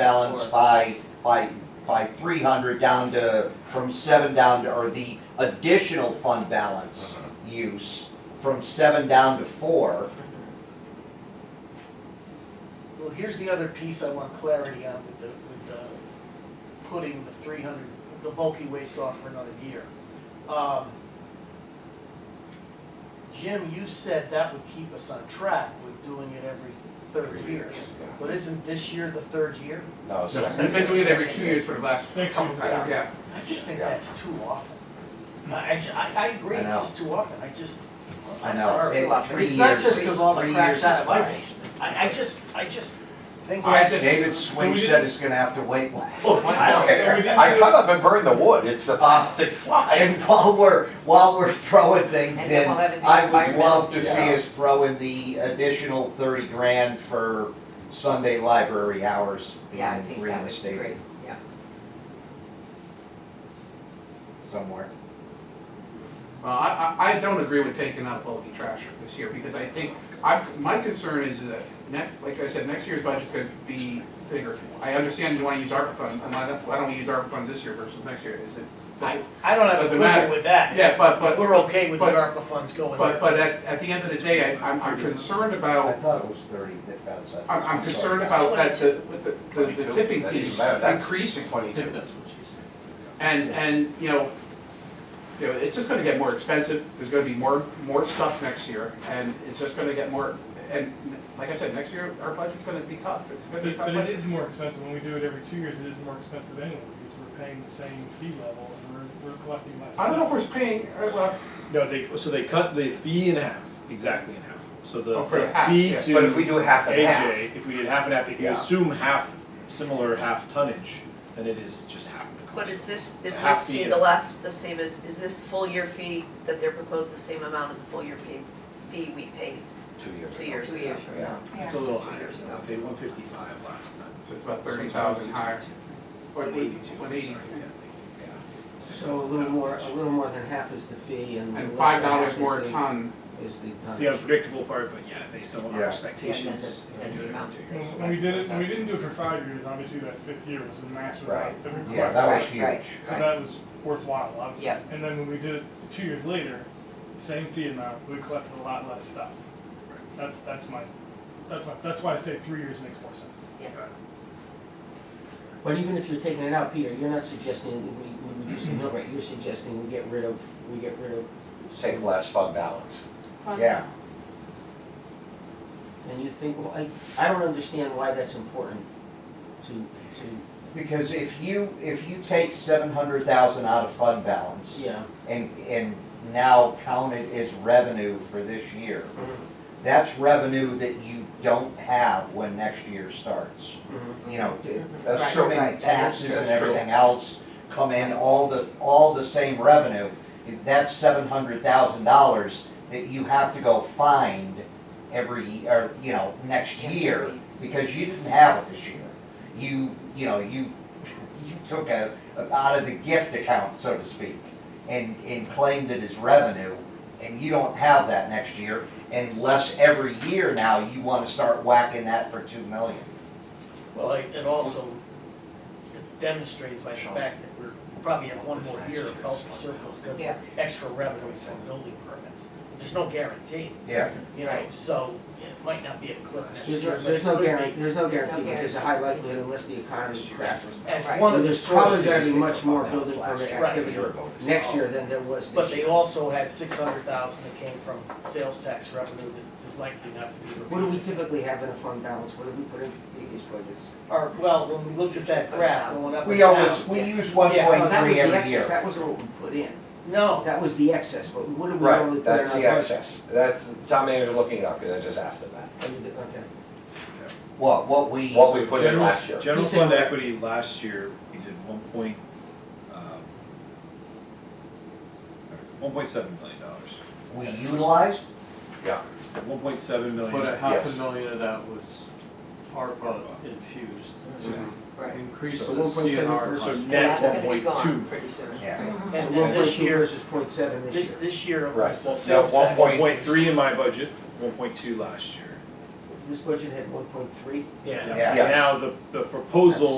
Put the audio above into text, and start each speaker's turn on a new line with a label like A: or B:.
A: balance
B: Four.
A: by, by, by three hundred down to, from seven down to, or the additional fund balance
C: Mm-hmm.
A: use from seven down to four.
B: Well, here's the other piece I want clarity on with the, with the, putting the three hundred, the bulky waste off for another year. Um, Jim, you said that would keep us on track with doing it every third year. But isn't this year the third year?
D: No, it's not.
E: We've been doing it every two years for the last
F: Six
E: couple
F: years.
E: times, yeah.
B: I just think
D: Yeah.
B: that's too often. I, I ju- I, I agree,
A: I
B: it's
A: know.
B: just too often, I just,
A: I
B: I'm
A: know,
B: sorry.
A: it- three
B: It's not
A: years
B: just
A: is-
B: because all the
A: three
B: crap's
A: years
B: out
A: is
B: of my
A: fine.
B: basement, I, I just, I just think
E: I
B: that's.
E: just-
A: David Swing said it's gonna have to wait.
F: So we didn't
D: I
F: do-
D: cut up and burned the wood, it's a plastic slide.
A: And while we're, while we're throwing things
C: And then
A: in,
C: we'll have it
A: I would love
C: environmental.
A: to see us throw in the additional thirty grand for Sunday library hours
C: Yeah, I
A: being
C: think that would be great,
A: reinstated
C: yeah.
A: somewhere.
E: Well, Uh, I, I, I don't agree with taking out bulky trash this year, because I think, I, my concern is that, next, like I said, next year's budget's gonna be bigger. I understand you wanna use ARPA funds, and I don't, I don't wanna use ARPA funds this year versus next year, is it?
B: I, I don't have a
E: Doesn't
B: quibble
E: matter.
B: with that.
E: Yeah, but, but,
B: We're okay with the
E: but-
B: ARPA funds going
E: but,
B: there.
E: but at, at the end of the day, I, I'm, I'm concerned
A: I
E: about,
A: thought it was thirty, that- that's. it.
E: I'm, I'm
A: sorry.
E: concerned about that, the, the, the tipping
D: That's
E: fees
D: even better. That's
E: increasing.
D: Twenty-two.
E: And, and, you know, you know, it's just gonna get more expensive, there's gonna be more, more stuff next year, and it's just gonna get more, and like I said, next year, our budget's gonna be tough, it's gonna
F: But
E: be a
F: it,
E: tough.
F: but it
E: budget.
F: is more expensive, when we do it every two years, it is more expensive anyway, because we're paying the same fee level, and we're, we're collecting less.
E: I don't know if we're paying, uh, well,
G: No, they so they cut the fee in half, exactly in half. So the
E: Oh, for
G: the
E: half,
G: fee
E: yeah.
G: to
D: But if we do half and half,
G: AJ, if we did half and half, if you
D: Yeah.
G: assume half similar half tonnage, then it is just half the cost.
H: But is this,
G: It's
H: is
G: half
H: this fee
G: the- uh,
H: the last, the same as, is this full year fee that they're proposed the same amount of the full year fee, fee we paid
D: two years.
H: two years
C: Two
H: ago?
C: years from now.
G: It's a little higher. I paid one fifty five last time.
E: so it's about
G: So
E: thirty
G: it's
E: thousand higher,
G: 162.
E: or
G: One eighty two.
E: one eighty,
I: So a little more, a little more than half is the fee and.
E: and
I: less
E: five
I: than half
E: dollars
I: is
E: more a
I: the-
E: ton.
I: Is the
G: It's
I: tonnage.
G: the unpredictable part, but yeah, based on
A: Yeah.
G: our expectations,
C: Yeah,
G: if
C: and
G: we
C: the-
G: do it
C: and
G: every two years.
C: the amount.
F: When when we did it, when we didn't do it for five years, obviously that fifth year was a massive
A: Right.
F: amount that we
A: Yeah,
F: collected.
A: that was
C: Right, right.
A: huge.
F: So that was worthwhile, obviously.
C: Yeah.
F: And then when we did it two years later, same fee amount, we collected a lot less stuff. That's, that's my, that's my, that's why I say three years makes more sense.
I: But even if you're taking it out, Peter, you're not suggesting that we, we reduce the mill rate, you're suggesting we get rid of, we get rid of.
D: Take less fund balance.
A: Yeah.
I: And you think, well, I, I don't understand why that's important to, to,
A: Because if you, if you take seven hundred thousand out of fund balance
I: yeah.
A: and, and now count it as revenue for this year, that's revenue that you don't have when next year starts. You know, assuming
C: right, that is
A: taxes
D: true.
A: and everything else come in, all the, all the same revenue, that's seven hundred thousand dollars that you have to go find every, or, you know, next year, because you didn't have it this year. You, you know, you, you took a, out of the gift account, so to speak, and, and claimed it as revenue, and you don't have that next year, unless every year now you wanna start whacking that for two million.
B: Well, I- and also, it's demonstrated by the fact that we're, we probably have one more year of healthy surplus because
C: Yeah.
B: of extra revenue from building permits. There's no guarantee,
A: Yeah,
B: you know,
C: Right.
B: so it might not be a cliff next
I: There's
B: year.
I: no,
B: but
I: there's
B: it
I: no
B: could be.
I: guarantee, there's no guarantee, but there's a high likelihood unless the economy crashes.
B: As
C: Right.
B: one
I: So
B: of the
I: there's probably
B: sources,
I: gonna be much more
D: Fund balance
I: building
D: last
I: permit
D: year, a
I: activity
D: year ago.
I: next year than there was
B: but
I: this
B: they
I: year.
B: also had six hundred thousand that came from sales tax revenue that is likely not to be repeated.
I: What do we typically have in a fund balance? What do we put in previous budgets?
B: Or, well, when we looked at that graph going up and
A: we always,
B: down.
A: we use
B: Yeah.
A: one point
I: Oh, that was
A: three
I: the
A: every
I: excess.
A: year.
I: That wasn't what we put in.
B: No,
I: Oh, That was the excess, but what do we normally
D: Right,
I: put in our budget?
D: that's the excess. That's, Tom manager looking it up, because I just asked him that.
I: Oh, you did, okay.
A: What, what we.
D: What we put in
G: General-
D: last year.
G: General
I: You said
G: fund
I: what?
G: equity last year, we did one point, um, one point seven million dollars.
A: We utilized,
G: One point seven million.
J: But a half
D: Yes.
J: a million of that was ARPA infused.
C: Right.
J: Increase
G: So
J: the
I: 1.7
J: CNR.
I: first
G: So
J: contribution.
G: net
C: That's
G: one
C: gonna be
G: point
C: gone
G: two.
C: pretty soon.
A: yeah.
I: So
B: and
I: one
B: then
I: point
B: this
I: two
B: year,
I: versus point seven this
B: this,
I: year.
B: this year it
D: Right.
B: was
D: No,
B: sales tax.
D: 1.3.
G: One point three in my budget, one point two last year.
K: this budget had one point three?
L: Yeah.
I: Yeah.
F: Now, the, the proposal